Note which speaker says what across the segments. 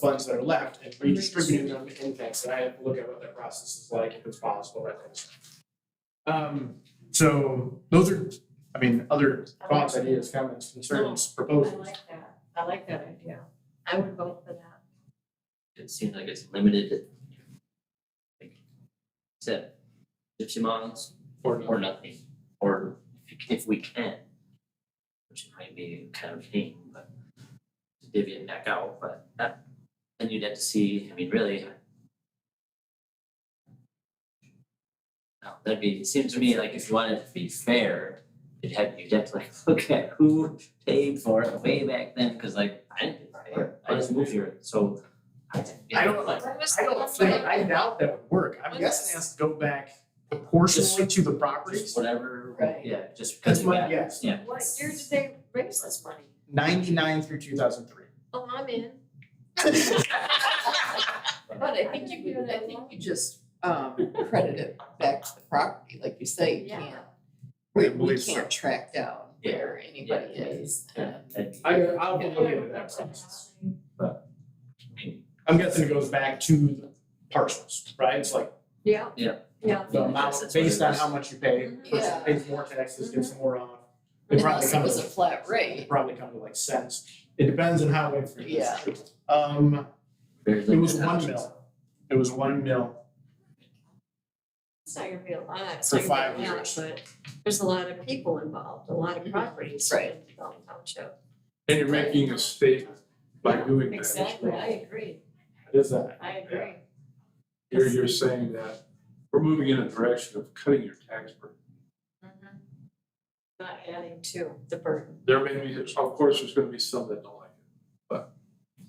Speaker 1: funds that are left and redistributing them to things. And I have to look at what that process is like, if it's possible, that kind of stuff. Um, so those are, I mean, other thoughts, ideas, comments, concerns,
Speaker 2: I
Speaker 1: proposals.
Speaker 2: like that, I like that idea, I would vote for that.
Speaker 3: It seems like it's limited. like, Except gypsy miles
Speaker 1: Or
Speaker 3: or nothing, or if you can- if we can. Which might be kind of a pain, but to divvy it back out, but that, then you'd have to see, I mean, really. uh, No, that'd be, it seems to me like if you wanted to be fair, you'd have, you'd have to like look at who paid for it way back then, cause like I didn't pay for it, I just moved here, so. I didn't-
Speaker 1: I don't like-
Speaker 2: When was
Speaker 1: I
Speaker 2: the
Speaker 1: don't
Speaker 2: last
Speaker 1: think,
Speaker 2: time-
Speaker 1: I doubt that would work. I'm guessing it has to go back proportionally to the properties.
Speaker 3: Just whatever,
Speaker 2: Right.
Speaker 3: yeah, just because
Speaker 1: That's
Speaker 3: you
Speaker 1: my
Speaker 3: got,
Speaker 1: guess.
Speaker 3: yeah.
Speaker 2: What year did they raise this money?
Speaker 1: Ninety-nine through two thousand three.
Speaker 2: Oh, I'm in.
Speaker 4: But I think you could, I think you just um credit it back to the property, like you say, you
Speaker 2: Yeah.
Speaker 4: can't.
Speaker 1: I
Speaker 4: We we
Speaker 1: believe so.
Speaker 4: can't track down
Speaker 3: Yeah.
Speaker 4: where anybody
Speaker 3: Yeah.
Speaker 4: is
Speaker 3: Yeah.
Speaker 4: and
Speaker 3: that'd be-
Speaker 1: I, I'll
Speaker 4: Yeah.
Speaker 1: look into that process. I'm guessing it goes back to the parcels, right? It's like
Speaker 2: Yeah.
Speaker 3: Yeah.
Speaker 2: Yeah.
Speaker 1: the amount,
Speaker 3: That's what it
Speaker 1: based on
Speaker 3: is.
Speaker 1: how much you pay, person
Speaker 4: Yeah. Mm-hmm.
Speaker 1: pays more taxes, gets more off. They probably
Speaker 4: unless it
Speaker 1: come
Speaker 4: was a
Speaker 1: to,
Speaker 4: flat rate,
Speaker 1: probably come to like cents. It depends on how it.
Speaker 4: Yeah.
Speaker 1: Um,
Speaker 3: Very
Speaker 1: it was
Speaker 3: limited
Speaker 1: one
Speaker 3: options.
Speaker 1: mil. It was one mil.
Speaker 2: It's not gonna be a lot, it's
Speaker 1: For
Speaker 2: not gonna
Speaker 1: five
Speaker 2: be a lot,
Speaker 1: years. Mm-hmm.
Speaker 2: but there's a lot of people involved, a lot of properties
Speaker 4: Right.
Speaker 2: in Dalton Township.
Speaker 5: And you're making a statement by doing that.
Speaker 2: Exactly, I agree,
Speaker 1: It is that.
Speaker 2: I agree.
Speaker 5: You're, you're saying that we're moving in a direction of cutting your tax burden.
Speaker 2: Mhm. Not adding to the burden.
Speaker 5: There may be, of course, there's gonna be some that don't like it.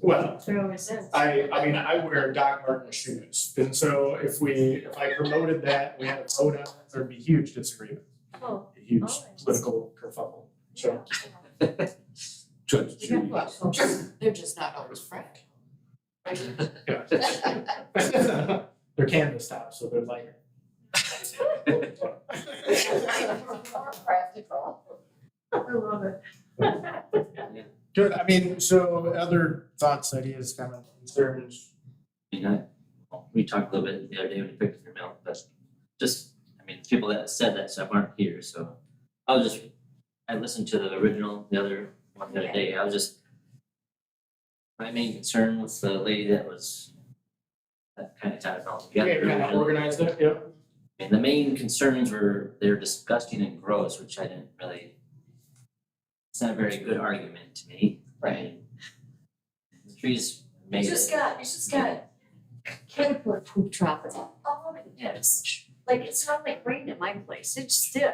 Speaker 1: Well,
Speaker 2: There always is.
Speaker 1: I, I mean, I wear Doc Martin shoes. And so if we, if I promoted that, we had a vote on it, there'd be huge disagreement,
Speaker 2: Oh,
Speaker 1: a huge
Speaker 2: Always.
Speaker 1: political kerfuffle. So
Speaker 5: Judge
Speaker 2: You got
Speaker 5: Judy,
Speaker 2: what?
Speaker 4: well, just- they're just not always frank.
Speaker 1: they're canvas tops, so they're lighter.
Speaker 4: More practical.
Speaker 2: I love it.
Speaker 1: Good, I mean, so other thoughts, ideas, comments, concerns?
Speaker 3: I mean, I, well, we talked a little bit the other day when you picked up your milk, but just, I mean, people that said that stuff aren't here, so I was just, I listened to the original, the other one the other day, I was just my main concern was the lady that was that kind of tied it all together.
Speaker 1: Okay, we kinda
Speaker 3: originally.
Speaker 1: organized it, yep.
Speaker 3: And the main concerns were they're disgusting and gross, which I didn't really. It's not a very good argument to me. Right. The trees
Speaker 2: You
Speaker 3: made
Speaker 2: just
Speaker 3: it,
Speaker 2: got, you just got caterpillar poop dropping all over the
Speaker 3: yes,
Speaker 2: place. Like, it smelled like rain in my place, it just did.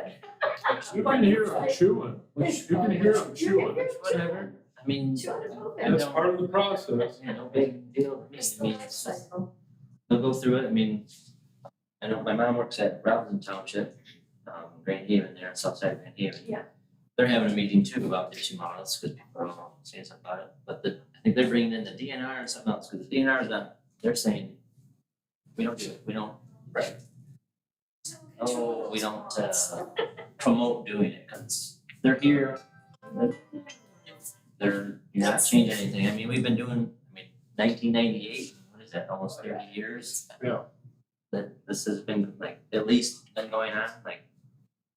Speaker 5: you can hear them chewing, you can hear them
Speaker 2: You can
Speaker 5: chewing,
Speaker 2: hear
Speaker 5: It's
Speaker 2: them
Speaker 5: whatever.
Speaker 3: I mean.
Speaker 2: Two hundred poop
Speaker 3: I
Speaker 2: in.
Speaker 5: That's part of the process.
Speaker 3: Yeah, no big deal to me,
Speaker 2: It's
Speaker 3: I
Speaker 2: the
Speaker 3: mean,
Speaker 2: life
Speaker 3: it's just-
Speaker 2: cycle.
Speaker 3: they'll go through it, I mean. I know my mom works at Robinson Township, um, Grand Haven there, Southside Grand Haven.
Speaker 2: Yeah.
Speaker 3: They're having a meeting too about the issue models, because people are all saying something about it, but the, I think they're bringing in the DNR and something else, because the DNR is not, um, they're saying. We don't do it, we don't, oh, we don't, uh, promote doing it, because they're here, they're, you're not changing anything, I mean, we've been doing, I mean, nineteen ninety-eight, what is that, almost thirty years?
Speaker 5: Yeah.
Speaker 3: That this has been like, at least been going on, like,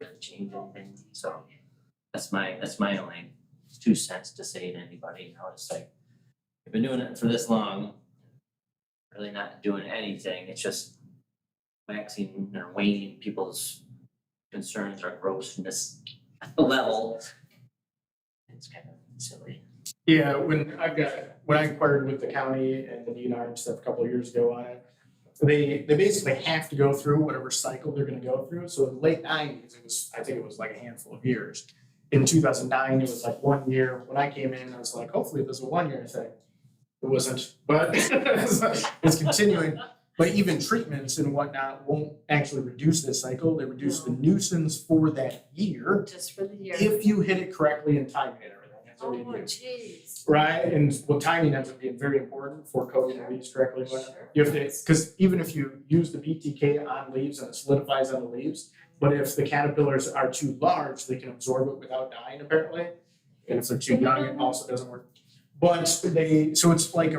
Speaker 3: really changing things, so. That's my, that's my only two cents to say to anybody, you know, it's like, we've been doing it for this long. Really not doing anything, it's just waxing or waning people's concerns or grossness level. It's kind of silly.
Speaker 1: Yeah, when I've got, when I inquired with the county and the DNR and stuff a couple of years ago on it, they, they basically have to go through whatever cycle they're gonna go through. So in the late nineties, it was, I think it was like a handful of years. In two thousand nine, it was like one year. When I came in, I was like, hopefully this is a one-year thing. It wasn't, but it's continuing. But even treatments and whatnot won't actually reduce this cycle. They reduce the nuisance for that year
Speaker 2: Just for the year.
Speaker 1: if you hit it correctly and time it and everything. That's
Speaker 2: Oh,
Speaker 1: what we do.
Speaker 2: jeez.
Speaker 1: Right, and well, timing ends up being very important for coding the leaves correctly, but
Speaker 2: Sure.
Speaker 1: you have to, because even if you use the BTK on leaves and it solidifies on the leaves, but if the caterpillars are too large, they can absorb it without dying apparently. And if they're too young, it also doesn't work. But they, so it's like a